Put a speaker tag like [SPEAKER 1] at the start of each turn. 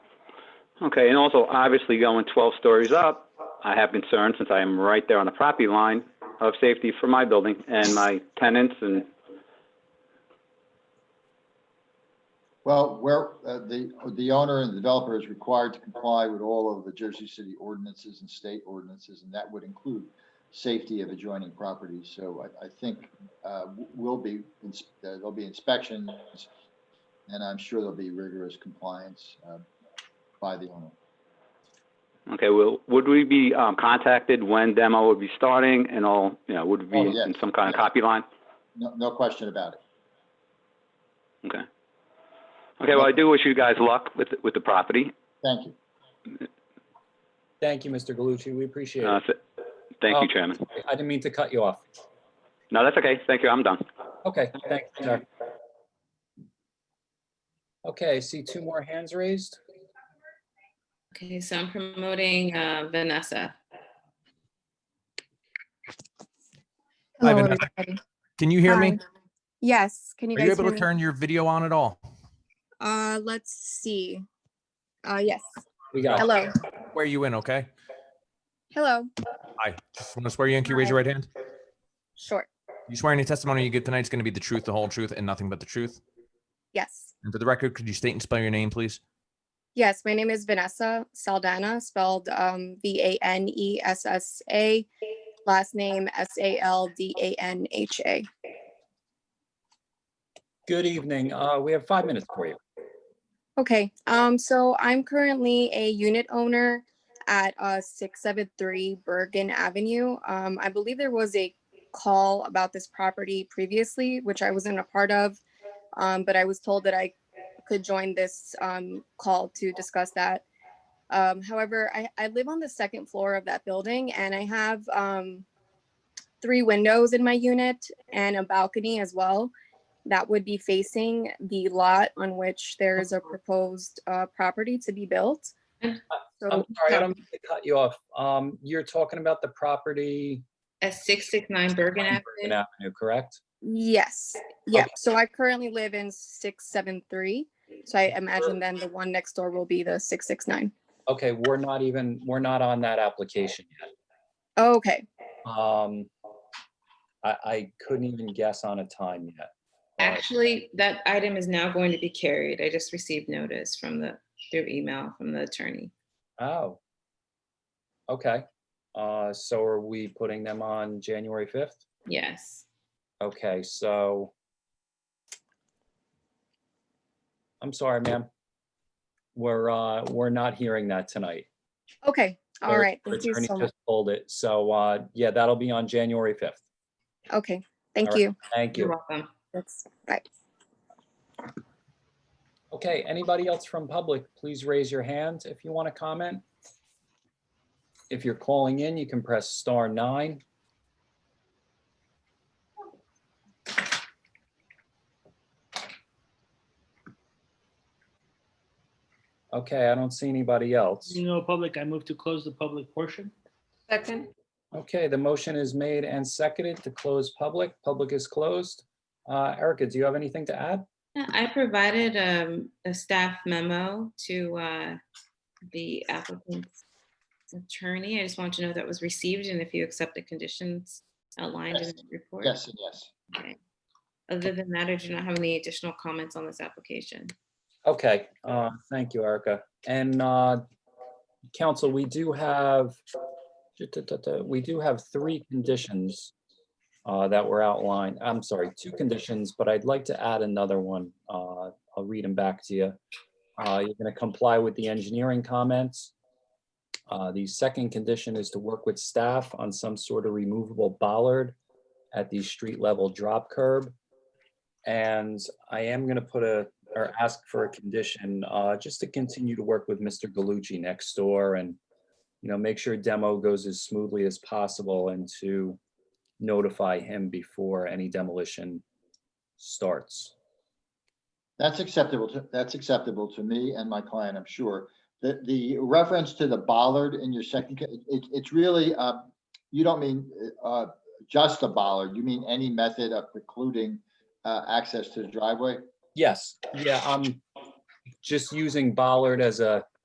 [SPEAKER 1] Okay, and also, obviously, going 12 stories up, I have concerns since I am right there on the property line of safety for my building and my tenants and,
[SPEAKER 2] Well, where, uh, the, the owner and developer is required to comply with all of the Jersey City ordinances and state ordinances, and that would include safety of adjoining properties. So I, I think, uh, w- will be, ins- uh, there'll be inspections, and I'm sure there'll be rigorous compliance, uh, by the owner.
[SPEAKER 1] okay, well, would we be um, contacted when demo would be starting and all, you know, would we
[SPEAKER 2] Oh,
[SPEAKER 1] be
[SPEAKER 2] yes,
[SPEAKER 1] in some kind of
[SPEAKER 2] yes.
[SPEAKER 1] copy line?
[SPEAKER 2] No, no question about it.
[SPEAKER 1] Okay. Okay, well, I do wish you guys luck with, with the property.
[SPEAKER 2] Thank you.
[SPEAKER 3] Thank you, Mr. Galucci. We appreciate
[SPEAKER 1] Uh,
[SPEAKER 3] it.
[SPEAKER 1] th- Thank
[SPEAKER 3] Oh.
[SPEAKER 1] you, Chairman.
[SPEAKER 3] I didn't mean to cut you off.
[SPEAKER 1] No, that's okay. Thank you. I'm done.
[SPEAKER 3] Okay, thanks, sir. Okay, I see two more hands raised.
[SPEAKER 4] Okay, so I'm promoting uh, Vanessa.
[SPEAKER 5] Hello,
[SPEAKER 6] Hi, Vanessa.
[SPEAKER 5] everybody.
[SPEAKER 6] Can you hear me?
[SPEAKER 5] Hi. Oh, Yes, can you
[SPEAKER 6] Are you
[SPEAKER 5] guys
[SPEAKER 6] able
[SPEAKER 5] hear
[SPEAKER 6] to
[SPEAKER 5] me?
[SPEAKER 6] turn your video on at all?
[SPEAKER 5] Uh, let's see. Uh, yes.
[SPEAKER 3] We got,
[SPEAKER 5] Hello.
[SPEAKER 6] Swear you in, okay?
[SPEAKER 5] Hello.
[SPEAKER 6] Hi. Just want to swear you in. Can you raise your right hand?
[SPEAKER 5] Short.
[SPEAKER 6] You swear any testimony you give tonight's going to be the truth, the whole truth, and nothing but the truth?
[SPEAKER 5] Yes.
[SPEAKER 6] And for the record, could you state and spell your name, please?
[SPEAKER 5] Yes, my name is Vanessa Saldana, spelled um, V A N E S S A, last name S A L D A N H A.
[SPEAKER 3] good evening. Uh, we have five minutes for you.
[SPEAKER 5] Okay, um, so I'm currently a unit owner at uh six seven three Bergen Avenue. Um, I believe there was a call about this property previously, which I wasn't a part of. Um, but I was told that I could join this um call to discuss that. Um, however, I, I live on the second floor of that building and I have um three windows in my unit and a balcony as well that would be facing the lot on which there is a proposed uh, property to be built.
[SPEAKER 3] I'm
[SPEAKER 5] So,
[SPEAKER 3] sorry, I don't mean to cut you off. Um, you're talking about the property
[SPEAKER 4] At 669
[SPEAKER 3] on
[SPEAKER 4] Bergen
[SPEAKER 3] Bergen
[SPEAKER 4] Avenue.
[SPEAKER 3] Avenue, correct?
[SPEAKER 5] yes, yeah,
[SPEAKER 3] Okay.
[SPEAKER 5] so I currently live in six, seven, three. So I imagine then the one next door will be the six, six, nine.
[SPEAKER 3] Okay, we're not even, we're not on that application yet.
[SPEAKER 5] Okay,
[SPEAKER 3] Um, I, I couldn't even guess on a time yet. Uh,
[SPEAKER 4] Actually, that item is now going to be carried. I just received notice from the, through email from the attorney.
[SPEAKER 3] Oh. Okay, uh, so are we putting them on January fifth?
[SPEAKER 4] Yes.
[SPEAKER 3] Okay, so. I'm sorry, ma'am. We're, uh, we're not hearing that tonight.
[SPEAKER 5] okay, all
[SPEAKER 3] Our
[SPEAKER 5] right, thank you
[SPEAKER 3] attorney
[SPEAKER 5] so much.
[SPEAKER 3] just Pulled it, so, uh, yeah, that'll be on January fifth.
[SPEAKER 5] Okay,
[SPEAKER 3] All
[SPEAKER 5] thank
[SPEAKER 3] right.
[SPEAKER 5] you.
[SPEAKER 3] Thank
[SPEAKER 4] You're
[SPEAKER 3] you.
[SPEAKER 4] welcome.
[SPEAKER 5] That's, bye.
[SPEAKER 3] Okay, anybody else from public, please raise your hand if you want to comment. If you're calling in, you can press star nine. Okay, I don't see anybody else.
[SPEAKER 7] Seeing no public, I move to close the public portion.
[SPEAKER 4] Second?
[SPEAKER 3] Okay, the motion is made and seconded to close public. Public is closed. Uh, Erica, do you have anything to add?
[SPEAKER 4] Yeah, I provided um, a staff memo to uh, the applicant's attorney. I just want to know that was received and if you accept the conditions outlined in the report.
[SPEAKER 2] Yes and yes.
[SPEAKER 4] Other than that, I do not have any additional comments on this application.
[SPEAKER 3] Okay, uh, thank you, Erica. And uh, council, we do have, we do have three conditions uh, that were outlined. I'm sorry, two conditions, but I'd like to add another one. Uh, I'll read them back to you. Uh, You're going to comply with the engineering comments. Uh, The second condition is to work with staff on some sort of removable bollard at the street level drop curb. And I am going to put a or ask for a condition, uh, just to continue to work with Mr. Galucci next door and, you know, make sure demo goes as smoothly as possible and to notify him before any demolition starts.
[SPEAKER 2] That's acceptable, to that's acceptable to me and my client, I'm sure. The, the reference to the bollard in your second, ca- it, it's really, uh, you don't mean, uh, just a bollard, you mean any method of precluding, uh, access to the driveway?
[SPEAKER 3] Yes, yeah, I'm just using um, Bollard as a,